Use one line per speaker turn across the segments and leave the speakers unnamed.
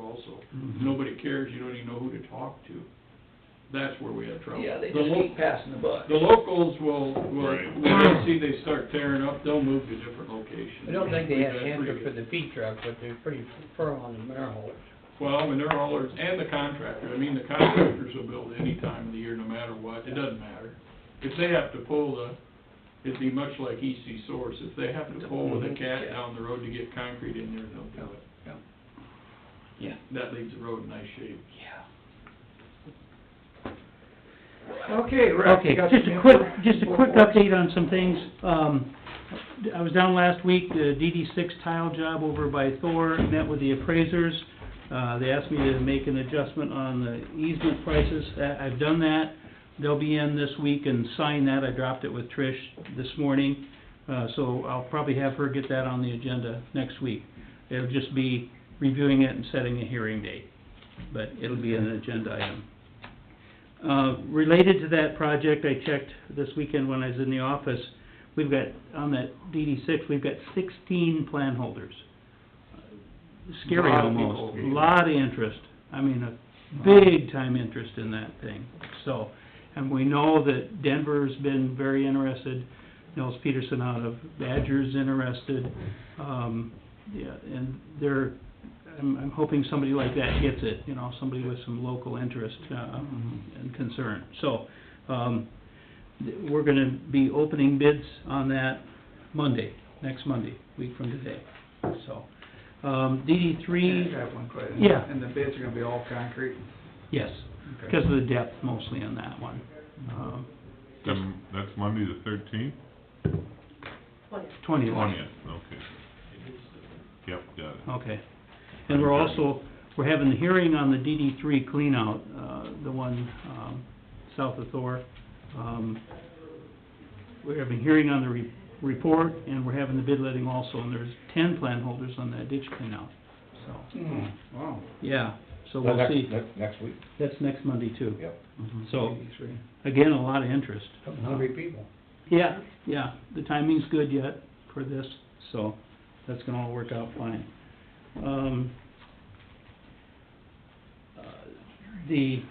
Mm-hmm.
nobody cares, you don't even know who to talk to. That's where we have trouble.
Yeah, they
The
just
lo-
keep passing the buck.
The locals will, will,
Right.
when they see they start tearing up, they'll move to different locations.
I don't think they
We've
have an
got pretty
answer
good-
for the feed truck, but they're pretty firm on the manure haulers.
Well, and they're haulers, and the contractor, I mean, the contractors will build any time of the year, no matter what, it doesn't matter. If they have to pull the, it'd be much like EC Source, if they have to pull with a cat down the road to get concrete in there, they'll do it.
Mm-hmm. Yeah.
Yeah.
That leaves the road in nice shape.
Yeah.
Okay, Rick,
Okay,
you got
just
some
a quick,
info-
just a
info
quick
for us?
update on some things. Um, I was down last week, the DD six tile job over by Thor, met with the appraisers. Uh, they asked me to make an adjustment on the easement prices. I- I've done that. They'll be in this week and sign that. I dropped it with Trish this morning. Uh, so I'll probably have her get that on the agenda next week. It'll just be reviewing it and setting a hearing date, but it'll be an agenda item. Uh, related to that project, I checked this weekend when I was in the office, we've got, on that DD six, we've got sixteen plan holders. Scary
Lot of
almost,
people.
lot of interest, I mean, a big time interest in that thing, so. And we know that Denver's been very interested, Nels Peterson out of Badger's interested, um, yeah, and they're, I'm, I'm hoping somebody like that gets it, you know, somebody with some local interest, uh, and concern. So, um, th- we're gonna be opening bids on that Monday, next Monday, week from today, so. Um, DD
Yeah,
three,
I have one question.
Yeah.
And the bids are gonna be all concrete?
yes,
Okay.
because of the depth mostly on that one. Um,
Then,
Mm-hmm.
that's Monday the thirteenth?
twenty.
Okay. Yep, got it.
Okay. And we're also, we're having the hearing on the DD three cleanout, uh, the one, um, south of Thor. Um, we're having a hearing on the re- report, and we're having the bid letting also, and there's ten plan holders on that ditch cleanout, so,
Hmm, wow.
yeah, so
Well,
we'll
next,
see.
next, next week,
That's next Monday too.
yep.
So,
Eighty-three.
again, a lot of interest.
Couple hundred people.
Yeah, yeah, the timing's good yet for this, so that's gonna all work out fine. Um, uh, the,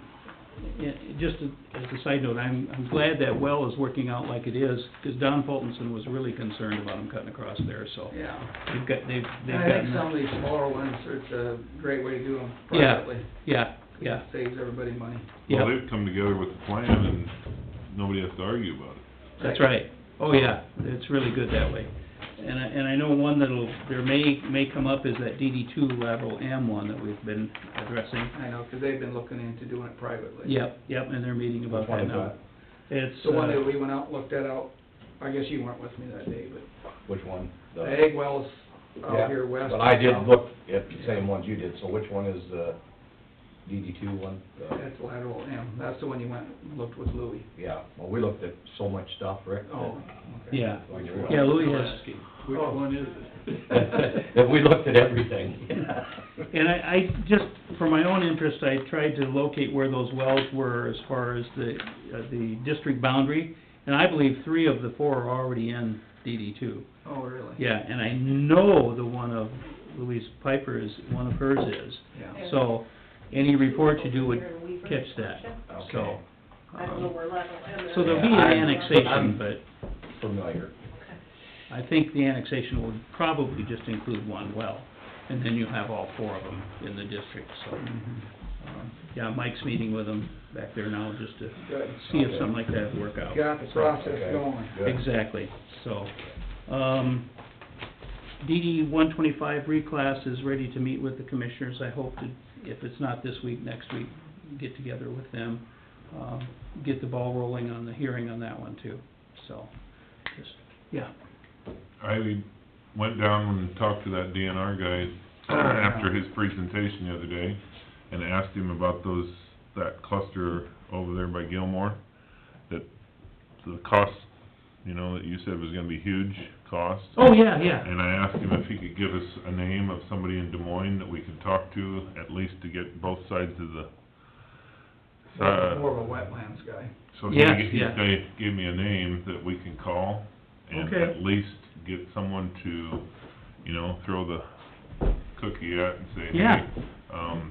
yeah, just a- as a side note, I'm, I'm glad that well is working out like it is, 'cause Don Fultonson was really concerned about him cutting across there, so
Yeah.
they've got, they've, they've
And I think some
gotten,
of these smaller ones, it's a great way to do them
Yeah,
privately.
yeah, yeah,
Saves everybody money.
Well,
yeah,
they've come together with a plan and nobody has to argue about it.
that's right. Oh, yeah, it's really good that way. And I, and I know one that'll, there may, may come up is that DD two lateral M one that we've been addressing.
I know, 'cause they've been looking into doing it privately.
Yep, yep, and they're meeting about
Which one
that
is
now. It's,
So one day
uh,
we went out, and looked that out, I guess you weren't with me that day, but
Which one? The-
the egg wells
Yeah,
out here west.
But I did look at the same ones you did, so which one is the DD two one? The-
That's lateral M, that's the one you went and looked with Louis.
Yeah, well, we looked at so much stuff, Rick. that-
Oh, okay.
yeah,
Which one?
yeah, Louis
We're
has,
asking, Which
Oh.
one is it?
That we looked at everything.
and I, I just, for my own interest, I tried to locate where those wells were as far as the, uh, the district boundary. And I believe three of the four are already in DD two.
Oh, really?
Yeah, and I know the one of Louise Piper is, one of hers is.
Yeah.
So, any report you do would catch that, so.
Okay,
I don't know
um,
where level M is.
So there'll be
Yeah,
an
I'm-
annexation,
I'm-
but.
familiar.
I think the annexation will probably just include one well, and then you'll have all four of them in the district, so.
Mm-hmm.
um, Yeah, Mike's meeting with them back there now, just to
Good.
see if something like that would work out.
Got the process
Okay,
going.
good.
Exactly, so, um, DD one twenty-five reclass is ready to meet with the commissioners, I hope to, if it's not this week, next week, get together with them, um, get the ball rolling on the hearing on that one too, so, just, yeah.
I went down and talked to that DNR guy after his presentation the other day and asked him about those, that cluster over there by Gilmore, that the cost, you know, that you said was gonna be huge cost.
Oh, yeah, yeah,
And I asked him if he could give us a name of somebody in Des Moines that we could talk to, at least to get both sides of the, uh,
More of a wetlands guy.
so he,
Yes,
he
yeah.
gave, gave me a name that we can call and
Okay.
at least get someone to, you know, throw the cookie at and say,
Yeah.
hey, um,